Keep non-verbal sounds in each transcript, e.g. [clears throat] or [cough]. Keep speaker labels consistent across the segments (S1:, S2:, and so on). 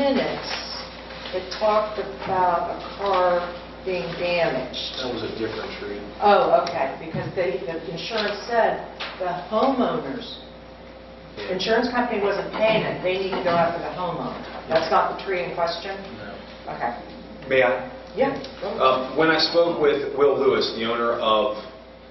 S1: minutes that talked about a car being damaged.
S2: That was a different tree.
S1: Oh, okay, because they, the insurance said the homeowners, the insurance company wasn't paying it, they need to go after the homeowner. That's not the tree in question? Okay.
S3: May I?
S1: Yeah.
S4: Oh.
S3: Um, When I spoke with Will Lewis, the owner of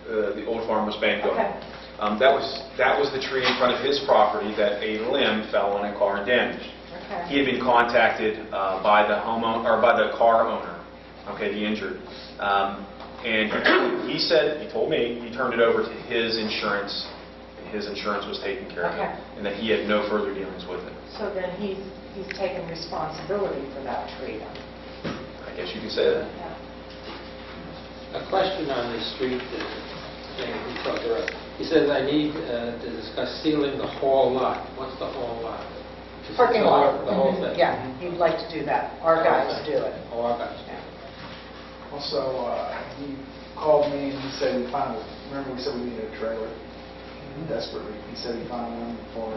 S3: uh, the Old Farmers Bank
S1: Okay.
S3: building, um, that was, that was the tree in front of his property that a limb fell on a car and damaged. He
S1: Okay.
S3: had been contacted uh, by the homeowner, or by the car owner, okay, the injured. Um, And he said, he told me, he turned it over to his insurance, and his insurance was taking care of it,
S1: Okay.
S3: and that he had no further dealings with it.
S1: So then he's, he's taking responsibility for that tree then?
S3: I guess you could say that.
S1: Yeah.
S4: A question on the street uh, thing we talked about. He says, "I need uh, to discuss sealing the whole lot." What's the whole lot? Just
S1: Parking
S4: the whole-
S1: lot.
S4: The whole
S1: Mhm.
S4: thing? Mm-hmm.
S1: Yeah, you'd like to do that. Our guys do it.
S4: Oh, our guys.
S1: Yeah.
S5: Also, uh, he called me and he said he found, remember we said we needed a trailer
S2: Mm-hmm.
S5: desperately? He said he found one for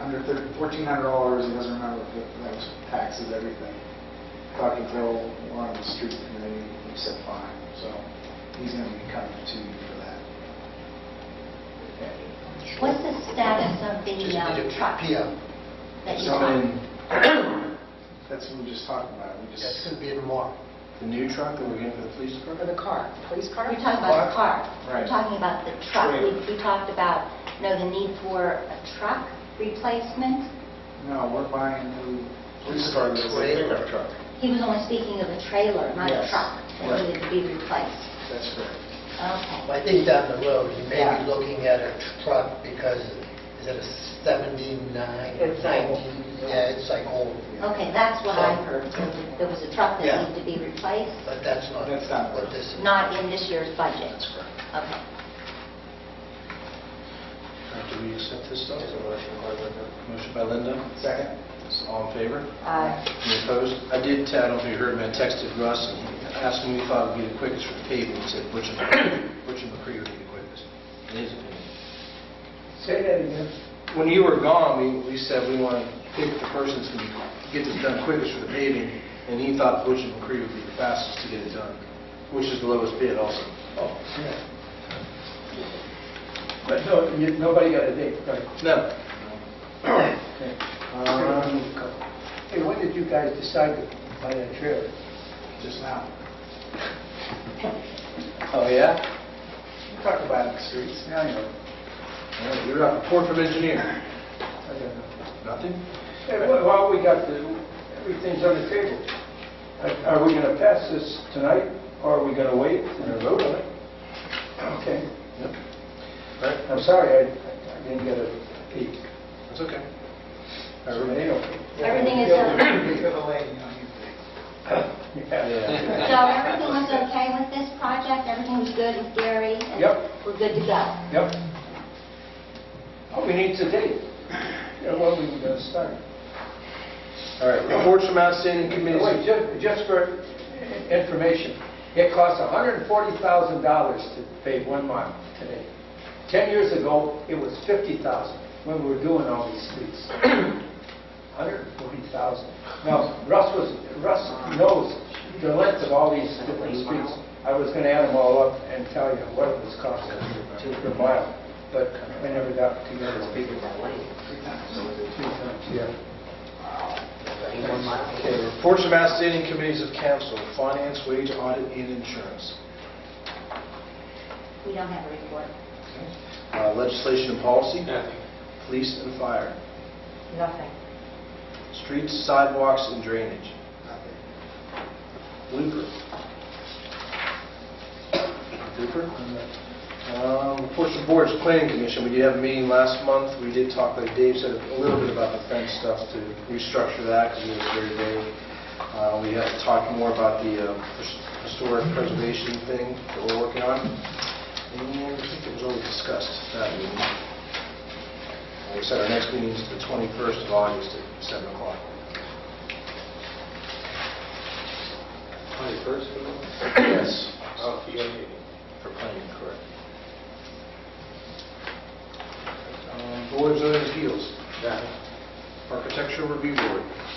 S5: under thir- $1,400, he doesn't remember if it- that was taxes, everything. Thought he'd throw one on the street and they, he said fine, so he's going to be coming to you for that.
S6: What's the status of the
S2: Just
S6: um,
S2: need a
S6: truck
S2: PM.
S6: that you
S5: So, I mean,
S6: bought?
S5: That's what we were just talking about, we just...
S2: That's gonna be tomorrow. The new truck that we're getting for the police Uh,
S1: For
S2: department?
S1: the car, police car?
S6: We're talking about the car.
S5: Right.
S6: We're talking about the truck.
S5: Trailer.
S6: We we talked about, you know, the need for a truck replacement.
S5: No, we're buying a new police car that's a
S2: Trailer.
S5: pickup truck.
S6: He was only speaking of a trailer, not a
S5: Yes.
S6: truck, that
S5: Right.
S6: needed to be replaced.
S5: That's correct.
S6: Okay.
S2: I think down the road, you may
S1: Yeah.
S2: be looking at a truck because, is it a 79?
S1: It's like-
S2: 19? Yeah, it's like old.
S6: Okay, that's what I heard. There was- There was a truck
S2: Yeah.
S6: that needed to be replaced,
S2: But that's not
S5: That's not
S2: what
S5: what-
S2: this is.
S6: not in this year's budget.
S2: That's correct.
S6: Okay.
S2: Do we accept this stuff? Motion by Linda,
S5: Second?
S2: all in favor?
S6: Uh,
S2: Any opposed? I did, I don't know if you heard me, I texted Russ and he asked me if I would be the quickest for paving. He said Butch and Butch and McCree would be the quickest, in his opinion.
S5: Say that again.
S2: When you were gone, we, we said we want to pick the person that's going to get this done quickest for the paving, and he thought Butch and McCree would be the fastest to get it done, which is the lowest bid also.
S7: Oh, yeah. But no, you- nobody got a date, right?
S2: No.
S7: Okay.
S2: Um,
S7: Hey, when did you guys decide to buy that trailer?
S5: Just now.
S2: Oh, yeah?
S5: Talk about the streets, now you know.
S2: Yeah, You're not report from engineer.
S7: I don't know.
S2: Nothing?
S7: Hey, wh- While we got the, everything's on the table, Are- are we going to pass this tonight, or are we going to wait and vote on it? Okay,
S2: Yep. All right,
S7: I'm sorry, I I didn't get a peek.
S2: that's okay.
S7: So they don't-
S6: Everything is,
S5: Because
S6: uh,
S5: of the lady, you know, you-
S7: Yeah.
S6: so everything was okay with this project? Everything was good with Gary? and
S7: Yep.
S6: We're good to go?
S7: Yep. All we need is a date, Yeah, when we going to start.
S2: All right, reports from outstanding committees.
S7: Wait, ju- just for information, it costs $140,000 to pave one mile today. 10 years ago, it was $50,000 when we were doing all these [clears throat] streets. $140,000. Now, Russ was, Russ knows the length of all these different streets. I was going to add them all up and tell you what it was costing per mile, but I never got together to speak about it. Three times, yeah.
S2: Okay, reports from outstanding committees of council, finance, wage, audit, and insurance.
S6: We don't have a report.
S2: Uh, Legislation and policy,
S4: Nothing.
S2: police and fire,
S1: Nothing.
S2: streets, sidewalks, and drainage. Looper. Looper? Um, Reports to boards, planning commission, we did have a meeting last month, we did talk, like Dave said, a little bit about the fence stuff to restructure that, because it was very vague. Uh, We have to talk more about the uh, historic preservation thing that we're working on, and uh, I think it was already discussed that meeting. Like I said, our next meeting is the 21st of August at 7 o'clock.
S4: 21st, of August?
S2: Yes,
S4: Oh, for your meeting.
S2: for planning, correct. Um, Boards and appeals,
S4: Nothing.
S2: architectural review board.